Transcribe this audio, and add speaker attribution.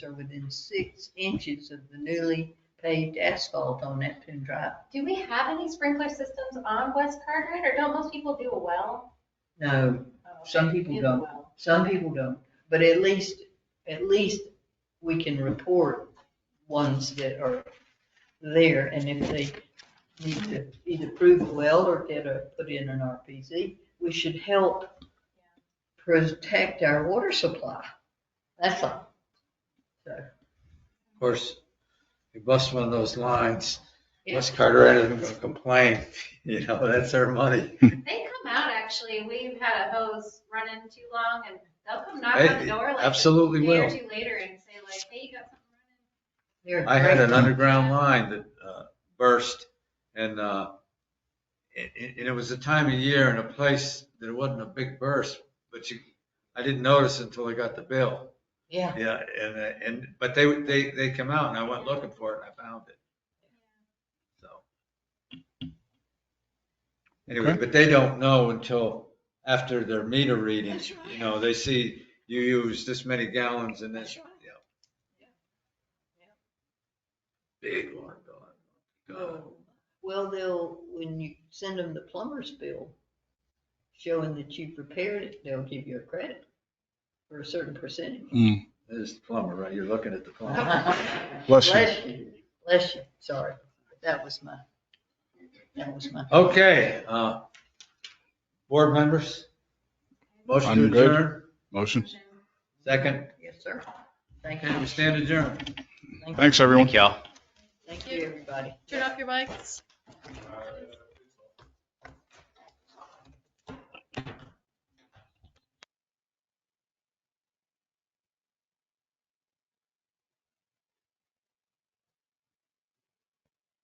Speaker 1: are within six inches of the newly paved asphalt on Neptune Drive.
Speaker 2: Do we have any sprinkler systems on West Carteret, or don't most people do a well?
Speaker 1: No,
Speaker 2: Oh,
Speaker 1: Some
Speaker 2: they
Speaker 1: people
Speaker 2: do a
Speaker 1: don't.
Speaker 2: well.
Speaker 1: some people don't, but at least, at least we can report ones that are there, and if they need to either prove the well or get a, put in an RPZ, we should help protect our water supply. That's all.
Speaker 3: Of course, you bust one of those lines, West Carteret isn't gonna complain, you know, that's our money.
Speaker 2: They come out, actually, we've had a hose running too long, and they'll come knock on
Speaker 3: Hey,
Speaker 2: the door like a
Speaker 3: Absolutely
Speaker 2: day or
Speaker 3: will.
Speaker 2: two later and say like, hey, you got something running?
Speaker 1: They're
Speaker 3: I had
Speaker 1: great.
Speaker 3: an underground line that uh, burst and, uh, it- it- and it was a time of year and a place that it wasn't a big burst, but you, I didn't notice until I got the bill.
Speaker 1: Yeah,
Speaker 3: Yeah, and, uh, and, but they, they, they come out and I went looking for it and I found it. So. Anyway,
Speaker 4: Okay.
Speaker 3: but they don't know until after their meter readings,
Speaker 1: That's right.
Speaker 3: you know, they see you use this many gallons and this,
Speaker 1: That's right.
Speaker 3: you know. Big water bill. God.
Speaker 1: Oh, Well, they'll, when you send them the plumber's bill, showing that you've repaired it, they'll give you a credit for a certain percentage.
Speaker 4: Mm,
Speaker 3: This is the plumber, right? You're looking at the plumber.
Speaker 1: Bless
Speaker 4: Bless you.
Speaker 1: you, bless you, sorry, that was my, that was my.
Speaker 3: Okay, uh, board members? Motion to
Speaker 4: I'm good.
Speaker 3: adjourn,
Speaker 4: Motion.
Speaker 3: second,
Speaker 1: Yes, sir. Thank
Speaker 3: okay, we
Speaker 1: you,
Speaker 3: stand adjourned.
Speaker 4: Thanks, everyone.
Speaker 5: Thank y'all.
Speaker 1: thank you, everybody.
Speaker 6: Turn off your mics.